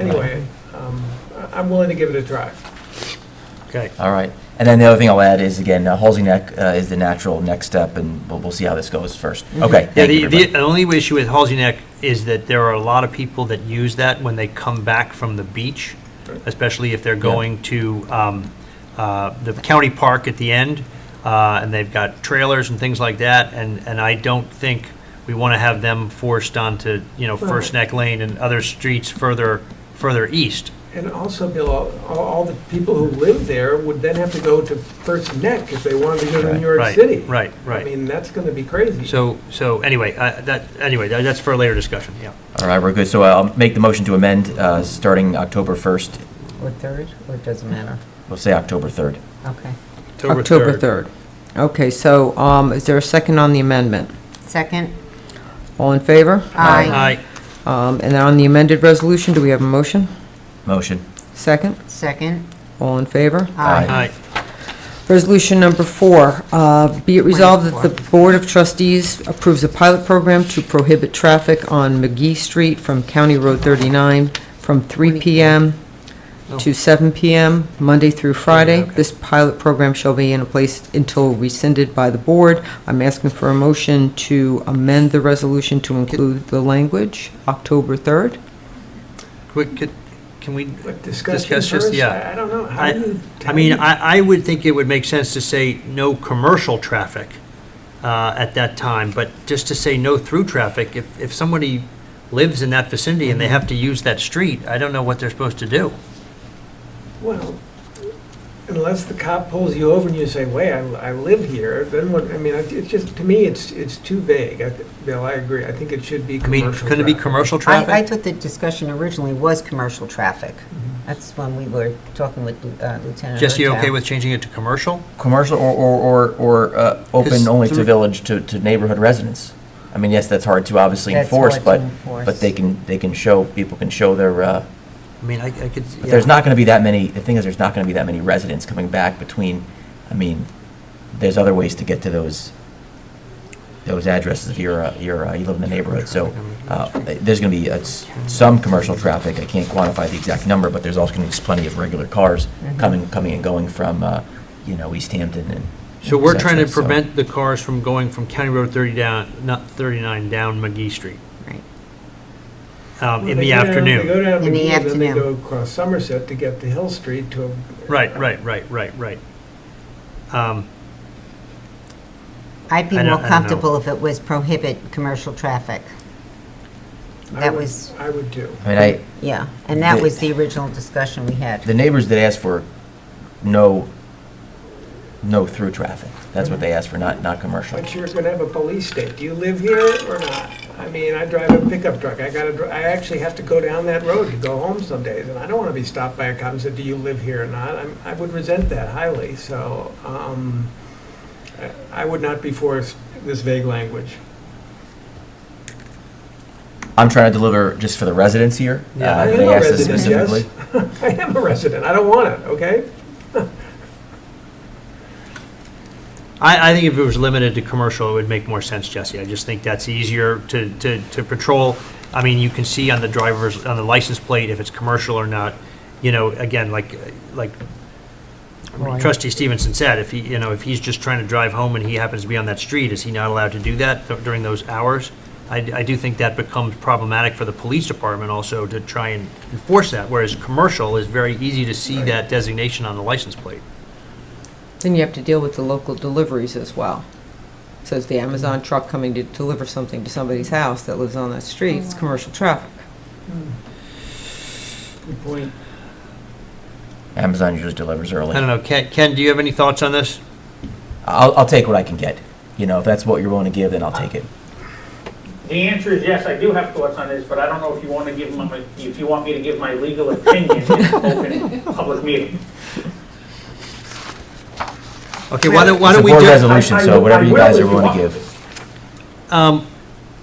anyway, um, I- I'm willing to give it a try. Okay. All right. And then the other thing I'll add is, again, uh, Halsey Neck uh, is the natural next step, and we'll, we'll see how this goes first. Okay, Yeah, thank the, you, the everybody. only issue with Halsey Neck is that there are a lot of people that use that when they come back from the beach, especially if they're going to um, uh, the county park at the end, uh, and they've got trailers and things like that, and, and I don't think we want to have them forced onto, you know, First Neck Lane and other streets further, further east. And also, Bill, all- all, all the people who live there would then have to go to First Neck if they wanted to go to Right, New York right, City. right, right. I mean, that's gonna be crazy. So, so anyway, uh, that, anyway, that- that's for a later discussion, yeah. All right, we're good. So uh, I'll make the motion to amend, uh, starting October 1st, Or third, or it doesn't matter? we'll say October 3rd. Okay. October 3rd. Okay, so um, is there a second on the amendment? Second? All in favor? Aye. Um, And then on the amended resolution, do we have a motion? Motion. Second? Second? All in favor? Aye. Aye. Resolution number four, uh, be it resolved that the Board of Trustees approves a pilot program to prohibit traffic on McGee Street from County Road 39 from 3 PM to 7 PM, Monday through Friday. This pilot program shall be in place until rescinded by the Board. I'm asking for a motion to amend the resolution to include the language, October 3rd. Quick, could- can we, But discussion Discuss just- first, yeah. I I don't know, how do I, you? I mean, I, I would think it would make sense to say no commercial traffic uh, at that time, but just to say no through traffic, if, if somebody lives in that vicinity and they Mm-hmm. have to use that street, I don't know what they're supposed to do. Well, unless the cop pulls you over and you say, wait, I, I live here, then what, I mean, it's just, to me, it's, it's too vague. I th- Bill, I agree, I think it should be I mean, commercial. couldn't it be traffic. commercial I, I traffic? thought the discussion originally was commercial traffic. Mm-hmm. That's when we were talking with uh, Lieutenant Jesse, you Hertel. okay with changing it to commercial? Commercial or, or, or, or uh, Because open only to through- village, to, to neighborhood residents? I mean, yes, that's hard to obviously That's enforce, hard to but, enforce. but they can, they can show, people can show their, uh, I mean, I I could. But there's yeah. not going to be that many, the thing is, there's not going to be that many residents coming back between, I mean, there's other ways to get to those, those addresses if you're, uh, you're, uh, you live in the neighborhood. So uh, there's going to be uh, s- some commercial traffic. I can't quantify the exact number, but there's also going to be plenty of regular cars coming, coming and going from, uh, you know, East Hampton and. So we're trying to et cetera, so- prevent the cars from going from County Road 30 down, not 39, down McGee Street Right. um, in They go the down- They go afternoon. down In the McGee, then they go afternoon. across Somerset to get to Hill Street to. a- Right, right, right, right, right. Um, I'd be I don't- I more don't know. comfortable if it was prohibit commercial traffic. I That would- was- I would too. I mean, I, Yeah, and that The- was the original discussion we had. the neighbors that asked for no, no through traffic, that's what they asked for, not, not commercial. But you're gonna have a police state. Do you live here or not? I mean, I drive a pickup truck. I gotta, dri- I actually have to go down that road to go home some days, and I don't wanna be stopped by a cop and said, do you live here or not? I'm, I would resent that highly, so, um, I- I would not be for this vague language. I'm trying to deliver just for the residents here. Yeah. Uh, I they am a asked us resident, yes. specifically. I am a resident. I don't want it, okay? I, I think if it was limited to commercial, it would make more sense, Jesse. I just think that's easier to, to, to patrol. I mean, you can see on the driver's, on the license plate if it's commercial or not. You know, again, like, like trustee Stevenson said, if he, you know, if he's just trying to drive home and he happens to be on that street, is he not allowed to do that th- during those hours? I, d- I do think that becomes problematic for the police department also to try and enforce that, whereas commercial is very easy to see that designation on the license plate. Then you have to deal with the local deliveries as well. So it's the Amazon truck coming to deliver something to somebody's house that lives on that street, it's commercial traffic. Good point. Amazon usually delivers I early. don't know, Ken, Ken, do you have any thoughts on this? I'll, I'll take what I can get. You know, if that's what you're willing to give, then I'll take it. The answer is yes, I do have thoughts on this, but I don't know if you want to give my, if you want me to give my legal opinion in an open public meeting. Okay, why don't, why It's a don't we board do, resolution, I- I- so whatever you I will guys if are you willing to want. give. um,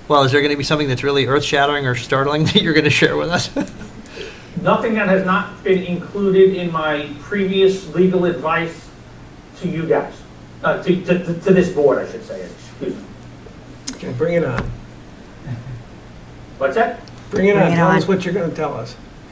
well, is there gonna be something that's really earth-shattering or startling that you're gonna share with us? Nothing that has not been included in my previous legal advice to you guys, uh, to, to, to this board, I should say, excuse me. Okay, bring it on. What's that? Bring it Bring on. it Tell on. us what you're gonna tell us.